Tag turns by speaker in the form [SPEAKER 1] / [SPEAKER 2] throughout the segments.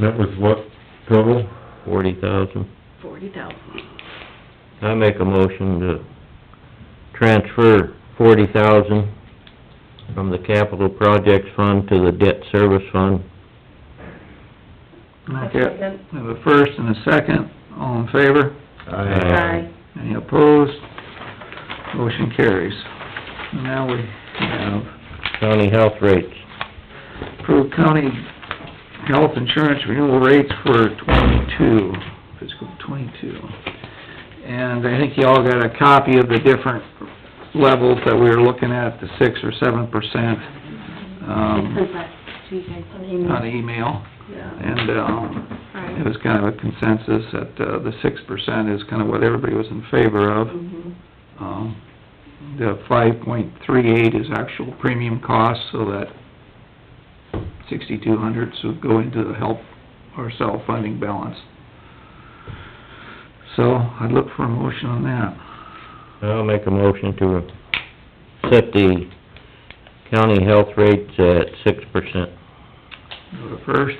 [SPEAKER 1] That was what total?
[SPEAKER 2] forty thousand.
[SPEAKER 3] forty thousand.
[SPEAKER 2] I make a motion to transfer forty thousand from the capital projects fund to the debt service fund.
[SPEAKER 4] Okay. We have a first and a second, all in favor?
[SPEAKER 3] Aye.
[SPEAKER 4] Any opposed? Motion carries. Now we have
[SPEAKER 2] County health rates.
[SPEAKER 4] approved county health insurance renewal rates for twenty-two, fiscal twenty-two. And I think you all got a copy of the different levels that we were looking at, the six or seven percent, um,
[SPEAKER 3] Sent that to you guys on
[SPEAKER 4] on
[SPEAKER 3] email.
[SPEAKER 4] email.
[SPEAKER 3] Yeah.
[SPEAKER 4] And, um, it
[SPEAKER 3] Alright.
[SPEAKER 4] was kind of a consensus that, uh, the six percent is kind of what everybody was in favor of.
[SPEAKER 3] Mhm.
[SPEAKER 4] Um, The five point three eight is actual premium cost, so that sixty-two hundred would go into the help or self-funding balance. So I'd look for a motion on that.
[SPEAKER 2] I'll make a motion to set the county health rates at six percent.
[SPEAKER 4] Go to first,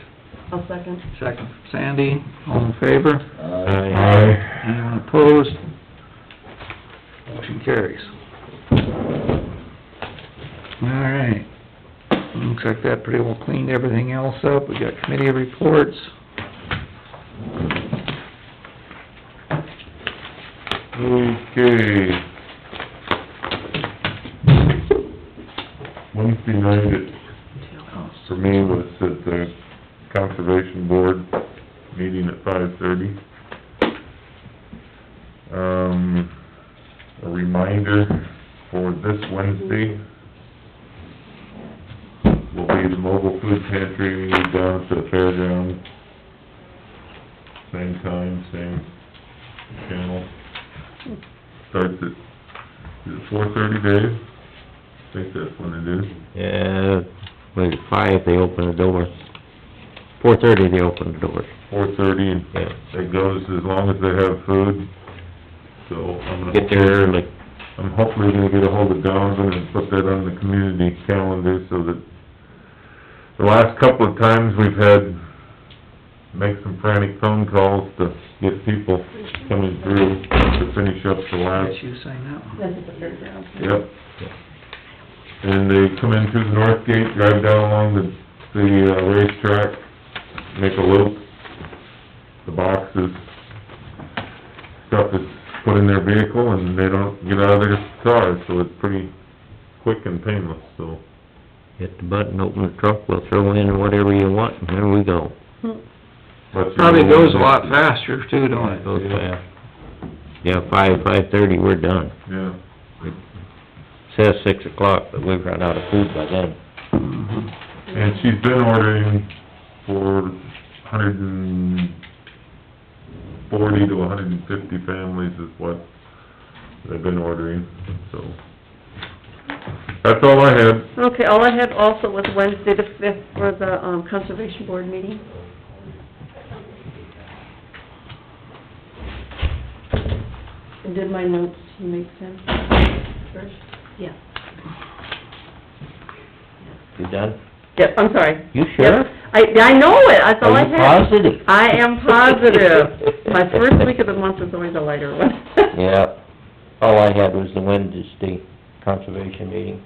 [SPEAKER 3] I'll second.
[SPEAKER 4] second Sandy, all in favor?
[SPEAKER 1] Aye.
[SPEAKER 4] Anyone opposed? Motion carries. All right. Looks like that pretty well cleaned everything else up. We got committee reports.
[SPEAKER 1] Okay. Wednesday night, it, for me, was at the Conservation Board meeting at five thirty. Um, a reminder for this Wednesday will be the mobile food pantry down at the fairground. Same time, same channel starts at, is it four thirty, Dave? I think that's when it is.
[SPEAKER 2] Yeah, wait, five, they open the doors. Four thirty, they open the doors.
[SPEAKER 1] Four thirty, and
[SPEAKER 2] Yeah.
[SPEAKER 1] it goes as long as they have food, so I'm gonna...
[SPEAKER 2] Get there early.
[SPEAKER 1] I'm hopefully gonna get ahold of Donovan and put that on the community calendar so that the last couple of times we've had, make some frantic phone calls to get people coming through to finish up the last
[SPEAKER 4] Did you sign that one?
[SPEAKER 3] That's at the fairgrounds.
[SPEAKER 1] Yep. And they come in through the north gate, drive down along the, the uh, racetrack, make a loop. The boxes, stuff is put in their vehicle and they don't get out of their car, so it's pretty quick and painless, so.
[SPEAKER 2] Hit the button, open the truck, we'll throw in whatever you want, and there we go.
[SPEAKER 1] let you
[SPEAKER 4] Probably
[SPEAKER 1] know when
[SPEAKER 4] goes a
[SPEAKER 1] it-
[SPEAKER 4] lot faster too, don't
[SPEAKER 2] It
[SPEAKER 4] it?
[SPEAKER 2] goes fast. Yeah, five, five-thirty, we're done.
[SPEAKER 1] Yeah.
[SPEAKER 2] Says six o'clock, but we've run out of food by then.
[SPEAKER 4] Mhm.
[SPEAKER 1] And she's been ordering for hundred and forty to hundred and fifty families is what they've been ordering, so. That's all I had.
[SPEAKER 3] Okay, all I had also was Wednesday the fifth for the, um, conservation board meeting. And Did my notes make sense first? Yeah.
[SPEAKER 2] You done?
[SPEAKER 3] Yep, I'm sorry.
[SPEAKER 2] You
[SPEAKER 3] Yep.
[SPEAKER 2] sure?
[SPEAKER 3] I, I know it, that's all I had.
[SPEAKER 2] Are you positive?
[SPEAKER 3] I am positive. My first week of the month is always a lighter one.
[SPEAKER 2] Yeah, all I had was the Wednesday conservation meeting.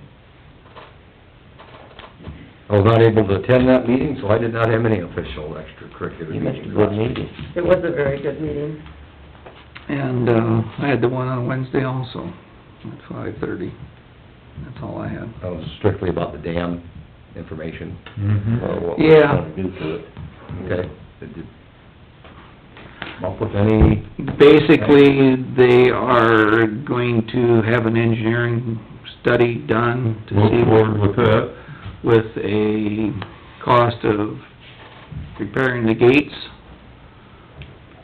[SPEAKER 5] I was not able to attend that meeting, so I did not have any official extracurricular
[SPEAKER 2] You missed a
[SPEAKER 5] meetings.
[SPEAKER 2] good meeting.
[SPEAKER 3] It was a very good meeting.
[SPEAKER 4] And, uh, I had the one on Wednesday also, at five thirty. That's all I had.
[SPEAKER 5] That was strictly about the dam information, or
[SPEAKER 1] Mm-hmm.
[SPEAKER 5] what we're
[SPEAKER 4] Yeah.
[SPEAKER 5] gonna do to it. Okay. Did you Come up with any,
[SPEAKER 4] Basically, they are going to have an engineering study done to
[SPEAKER 1] Move
[SPEAKER 4] see
[SPEAKER 1] forward with that.
[SPEAKER 4] with a cost of repairing the gates,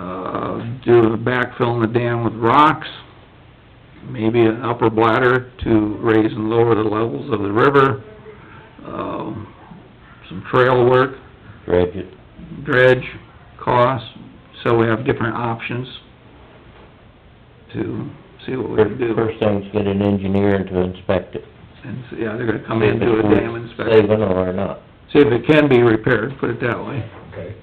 [SPEAKER 4] uh, do a backfill in the dam with rocks, maybe an upper bladder to raise and lower the levels of the river, um, some trail work,
[SPEAKER 2] Dredge it.
[SPEAKER 4] dredge, cost, so we have different options to see what we can do.
[SPEAKER 2] First thing's get an engineer and to inspect it.
[SPEAKER 4] And, so, yeah, they're gonna come in, do a dam inspection,
[SPEAKER 2] Saving or not.
[SPEAKER 4] see if it can be repaired, put it that way.
[SPEAKER 5] okay.